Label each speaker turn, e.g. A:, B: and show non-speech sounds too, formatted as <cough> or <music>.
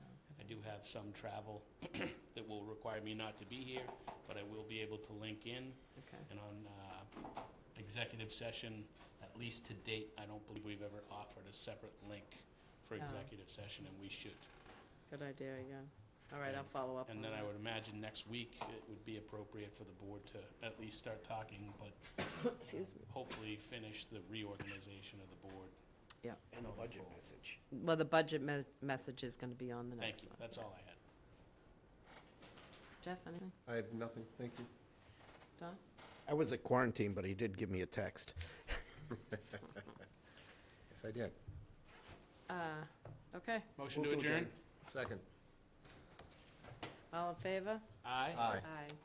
A: got some travel <clears throat> that will require me not to be here, but I will be able to link in.
B: Okay.
A: And on uh, executive session, at least to date, I don't believe we've ever offered a separate link for
B: No.
A: executive session, and we should.
B: Good idea, yeah. All right, I'll follow up on
A: And then I
B: that.
A: would imagine next week, it would be appropriate for the board to at least start talking, but
B: Excuse me.
A: hopefully finish the reorganization of the board.
B: Yeah.
C: And a budget message.
B: Well, the budget me- message is going to be on the
A: Thank
B: next
A: you,
B: one.
A: that's all I had.
B: Jeff, anything?
D: I have nothing, thank you.
B: Don?
C: I was at quarantine, but he did give me a text.
D: Yes, I did.
B: Uh, okay,
A: Motion to
C: Move to
A: adjourn?
C: adjourn.
D: Second.
B: all in favor?
A: Aye.
D: Aye.
B: Aye.